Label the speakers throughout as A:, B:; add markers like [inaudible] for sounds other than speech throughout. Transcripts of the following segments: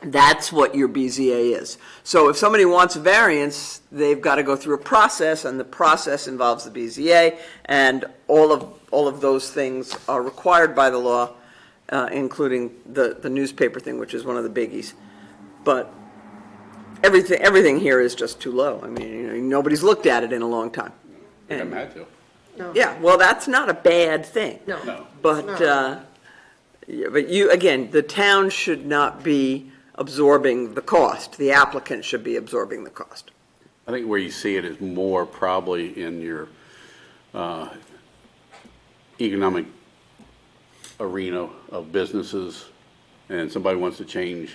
A: That's what your BZA is. So if somebody wants a variance, they've got to go through a process, and the process involves the BZA, and all of, all of those things are required by the law, uh, including the, the newspaper thing, which is one of the biggies. But everything, everything here is just too low. I mean, you know, nobody's looked at it in a long time.
B: We haven't had to.
A: Yeah, well, that's not a bad thing.
C: No.
B: No.
A: But,
C: No.
A: uh, yeah, but you, again, the town should not be absorbing the cost. The applicant should be absorbing the cost.
B: I think where you see it is more probably in your uh, economic arena of businesses, and somebody wants to change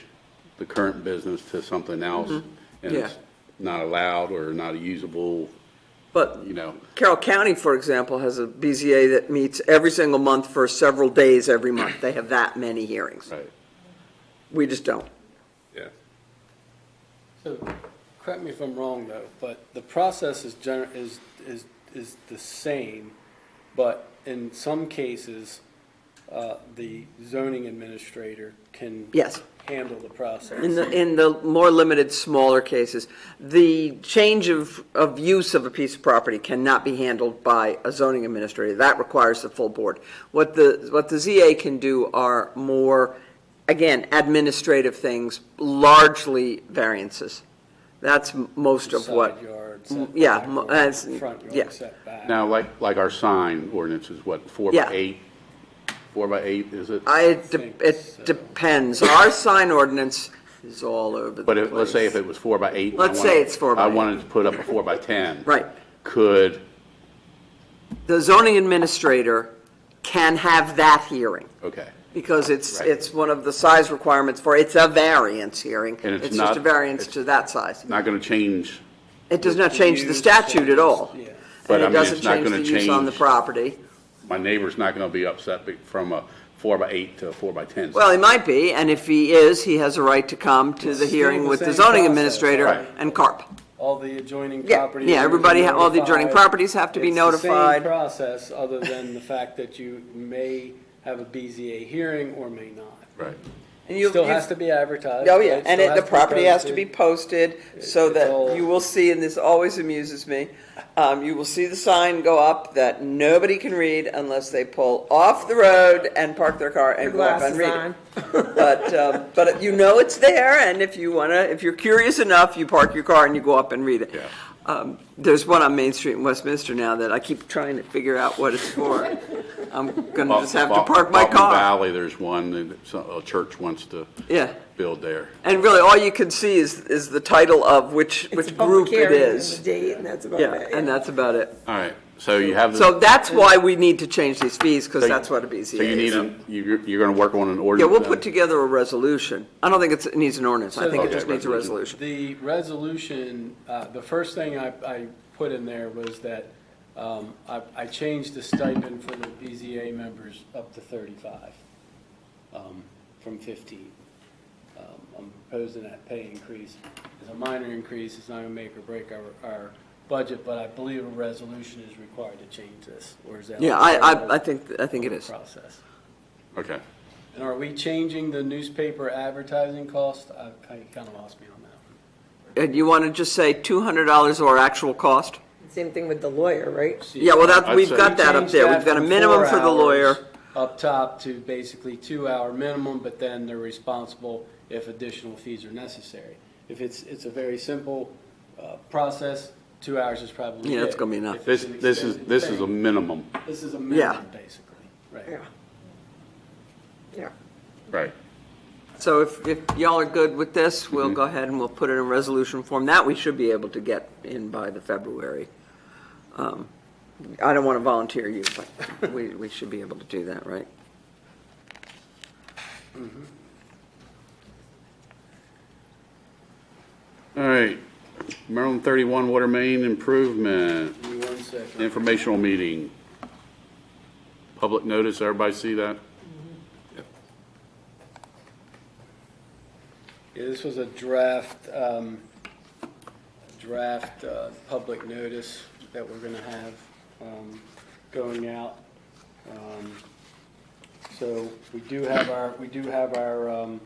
B: the current business to something else, and
A: Mm-hmm. Yeah.
B: it's not allowed or not usable,
A: But
B: you know.
A: Carroll County, for example, has a BZA that meets every single month for several days every month. They have that many hearings.
B: Right.
A: We just don't.
B: Yeah.
D: So, correct me if I'm wrong though, but the process is gener, is, is, is the same, but in some cases, uh, the zoning administrator can.
A: Yes.
D: Handle the process.
A: In the, in the more limited, smaller cases, the change of, of use of a piece of property cannot be handled by a zoning administrator. That requires the full board. What the, what the ZA can do are more, again, administrative things, largely variances. That's m- most of what.
D: Side yard,
A: Mm, yeah,
D: setback,
A: mo-
D: or
A: that's-
D: Front
A: yeah.
D: yard setback.
B: Now, like, like our sign ordinance is what, four by
A: Yeah.
B: eight? Four by eight, is it?
A: I, it de-
D: think
A: it
D: so.
A: depends. Our sign ordinance is all over the
B: But
A: place.
B: if, let's say if it was four by eight. and I
A: Let's
B: wanted-
A: say it's four by
B: I
A: eight.
B: wanted to put up a four by 10.
A: Right.
B: Could,
A: The zoning administrator can have that hearing.
B: okay.
A: Because it's,
B: Right.
A: it's one of the size requirements for, it's a variance hearing.
B: And it's
A: just
B: not-
A: a variance
B: it's-
A: to that size.
B: Not going to change,
A: It does not change the
D: Use
A: statute at
D: changes,
A: all.
D: yeah.
B: But,
A: And
B: I
A: it
B: mean, it's
A: doesn't
B: not
A: change the
B: gonna
A: use on the
B: change-
A: property.
B: my neighbor's not going to be upset be- from a four by eight to a four by 10.
A: Well, he might be, and if he is, he has a right to come to the
D: still
A: hearing
D: the
A: with the
D: same
A: zoning
D: process,
A: administrator
B: right.
A: and CARP.
D: All the adjoining
A: Yeah,
D: properties.
A: yeah,
D: are
A: everybody ha- all the adjoining
D: notified.
A: properties have to be
D: It's the same
A: notified.
D: process, other than the fact that you may have a BZA hearing or may not.
B: Right.
A: And you-
D: Still
A: you-
D: has to be advertised.
A: Oh,
D: right?
A: yeah, and
D: Still
A: it, the
D: be
A: property has to be
D: posted.
A: posted, so
D: It's all-
A: that you will see, and this always amuses me, um, you will see the sign go up that nobody can read unless they pull off the road and park their car and go up and
C: Glasses
A: read it.
C: on.
A: [laughs] But, um, but you know it's there, and if you wanna, if you're curious enough, you park your car and you go up and read it.
B: Yeah.
A: Um, there's one on Main Street in Westminster now that I keep trying to figure out what it's
D: [laughs]
A: for. I'm gonna just have to
B: Fal-
A: park my
B: Falcon
A: car.
B: Valley, there's one, that so- a church wants to
A: Yeah.
B: build there.
A: And really, all you can see is, is the title of which, which group it
C: It's a public
A: is.
C: hearing and the date, and that's about
A: Yeah,
C: it.
A: and that's about it.
B: All right, so you have. the-
A: So that's why we need to change these fees, because
B: so you-
A: that's what a BZA is.
B: So you need, a- you- you're going to work on an
A: Yeah,
B: ordinance?
A: we'll put
B: then?
A: together a resolution. I don't think it's, it needs an ordinance. I think it
B: Okay,
A: just needs a resolution.
B: resolution.
D: The resolution, uh, the first thing I, I put in there was that, um, I, I changed the stipend for the BZA members up to thirty-five, um, from fifteen. Um, I'm proposing that pay increase. It's a minor increase, it's not gonna make or break our, our budget, but I believe a resolution is required to change this, or is that?
A: Yeah, I, I, I think, I think it is.
D: Process.
B: Okay.
D: And are we changing the newspaper advertising cost? I kinda lost me on that one.
A: And you want to just say two hundred dollars or actual cost?
C: Same thing with the lawyer, right?
A: Yeah, well, that,
B: I'd
A: we've
B: say-
A: got that up
D: Change
A: there.
D: that
A: We've got a
D: from
A: minimum
D: four
A: for the
D: hours
A: lawyer.
D: Up top to basically two-hour minimum, but then they're responsible if additional fees are necessary. If it's, it's a very simple uh, process, two hours is probably
A: Yeah,
D: it.
A: it's gonna be enough.
D: If
B: This,
D: it's an
B: this is,
D: extended
B: this is a
D: thing,
B: minimum.
D: This is a
A: Yeah.
D: minimum, basically, right?
C: Yeah. Yeah.
B: Right.
A: So if, if y'all are good with this, we'll go ahead and we'll put it in resolution form. That we should be able to get in by the February. Um, I don't want to volunteer you, but we, we should be able to do that, right?
B: All right, Maryland 31 Water Main Improvement
D: Give me one second.
B: Informational Meeting. Public notice, everybody see that?
D: Yeah, this was a draft, um, draft, uh, public notice that we're gonna have, um, going out. Um, So we do have our, we do have our, um,